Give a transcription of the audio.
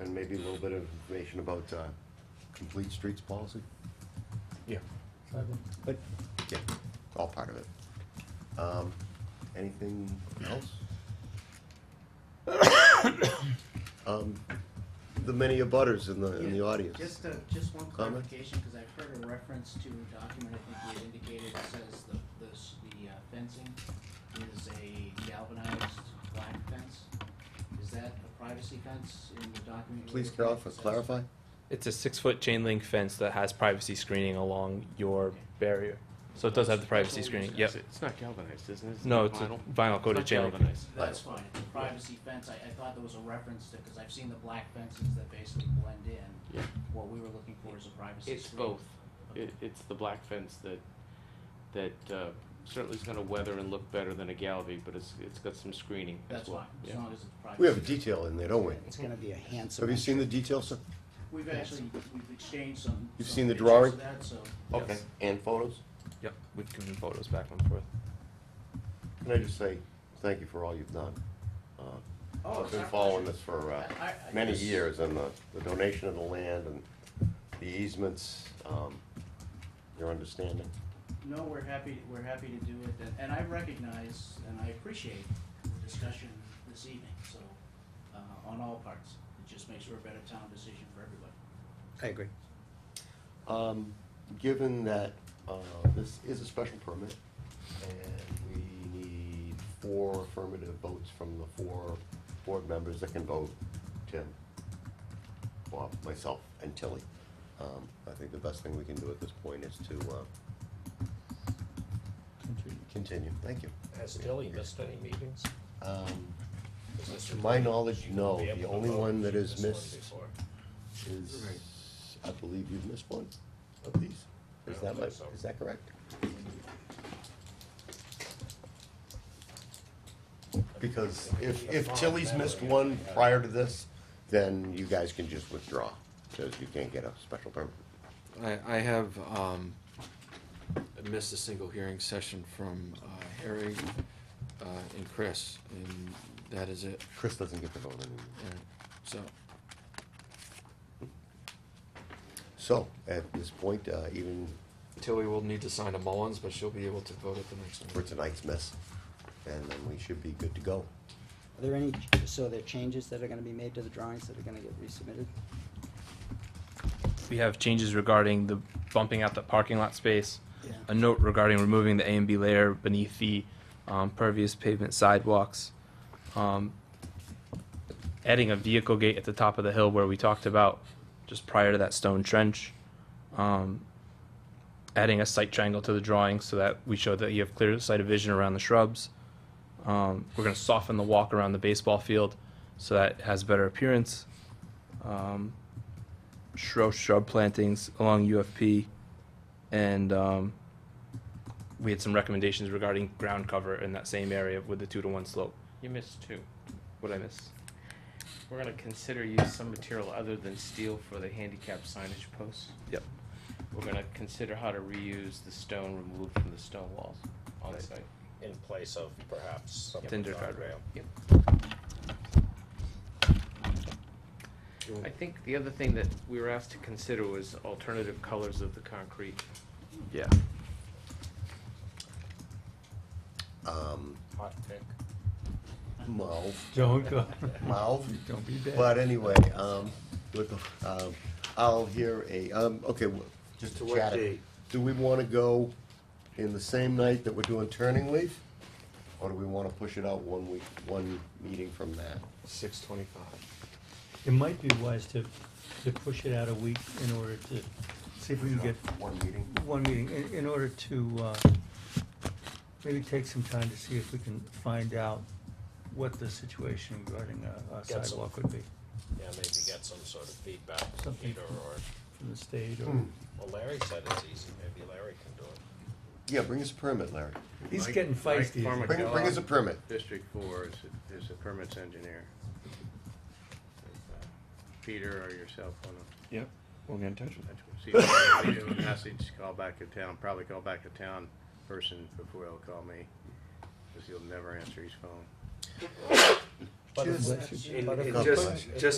And maybe a little bit of information about uh, complete streets policy? Yeah. But, yeah, all part of it. Um, Anything else? Um, The many abutters in the, in the Yeah, audience. Just, a- just one Comment? clarification, because I've heard a reference to a document, I think you had indicated, that says the, the, s- the uh, fencing is a galvanized black fence. Is that a privacy fence in the document? you Please were looking at clarify, that says- clarify? It's a six foot chain link fence that has privacy screening along your barrier. So it does have the privacy That's what we screening. Yep. discussed. It's not galvanized, isn't it? It's No, not it's a vinyl. vinyl It's coated not chain link. galvanized. That's fine, the privacy fence, I, I thought there was a reference to, because I've seen the black fences that basically blend in. Yeah. What we were looking for is a privacy. It's screen. both. It, it's the black fence that, that uh, certainly is gonna weather and look better than a Galvy, but it's, it's got some screening as That's fine, well. as Yeah. long as it's privacy. We have a detail in there, don't we? It's gonna be a handsome. Have you seen the details, sir? We've actually, we've exchanged some. You've some seen the pictures of drawing? that, so- Okay, Yes. and photos? Yep. We've given photos back and forth. Can I just say, thank you for all you've done. Uh, Oh, I've it's been our following pleasure. this for uh, I- I- I many just- years, and the the donation of the land and the easements, um, your understanding. No, we're happy, we're happy to do it, and- and I recognize and I appreciate the discussion this evening, so, uh, on all parts. It just makes for a better town decision for everybody. I agree. Um, Given that uh, this is a special permit, and we need four affirmative votes from the four board members that can vote, Tim, Bob, myself, and Tilly, um, I think the best thing we can do at this point is to uh, continue. Thank you. Has Tilly missed any meetings? Um, Is this- To my knowledge, She's no. been able The to only vote. one that She's is one missed before. is, I believe you've missed one of these. Is I that don't my, think so. is that correct? Because if, if Tilly's missed one prior to this, then you guys can just withdraw, because you can't get a special permit. I, I have, um, missed a single hearing session from, uh, Harry, uh, and Chris, and that is it, Chris doesn't get the vote anymore. and so, So, at this point, uh, even Tilly will need to sign a Mullins, but she'll be able to vote at the next for one. tonight's miss, and then we should be good to go. Are there any, so are there changes that are gonna be made to the drawings that are gonna get resubmitted? We have changes regarding the bumping out the parking lot space. Yeah. A note regarding removing the A and B layer beneath the um, pervious pavement sidewalks. Um, adding a vehicle gate at the top of the hill where we talked about just prior to that stone trench. Um, adding a sight triangle to the drawing so that we show that you have clear sight of vision around the shrubs. Um, we're going to soften the walk around the baseball field so that it has better appearance. Um, shrub shrub plantings along UFP, and um, we had some recommendations regarding ground cover in that same area with the two to one slope. You missed two. What I miss? We're gonna consider use some material other than steel for the handicap signage posts. Yep. We're gonna consider how to reuse the stone removed from the stone walls on Right. site. In place of perhaps some Tinder card. guardrail. I think the other thing that we were asked to consider was alternative colors of the concrete. Yeah. Um, Hot pick. well, Don't go. mouth. Don't be bad. But anyway, um, look, um, I'll hear a, um, okay, w- just to To what chat. it. date? Do we wanna go in the same night that we're doing turning leaf? Or do we wanna push it out one week, one meeting from that? Six twenty-five. It might be wise to, to push it out a week in order to, see if we can get One meeting? one meeting, in, in order to, uh, maybe take some time to see if we can find out what the situation regarding a- a Get some- sidewalk would be Yeah, maybe get some sort of feedback from Something. Peter or, from the state or. Hmm. well, Larry said it's easy, maybe Larry can do it. Yeah, bring us a permit, Larry. He's getting feisty. Mike Bring, bring us a permit. District Four is, is a permits engineer. Uh, Peter or yourself on Yep, we'll get in touch with See if they do a message, call back to town, probably call back to town person before they'll call me, because he'll never answer his phone. But if- Just- in- in Buttercup just- punch. if we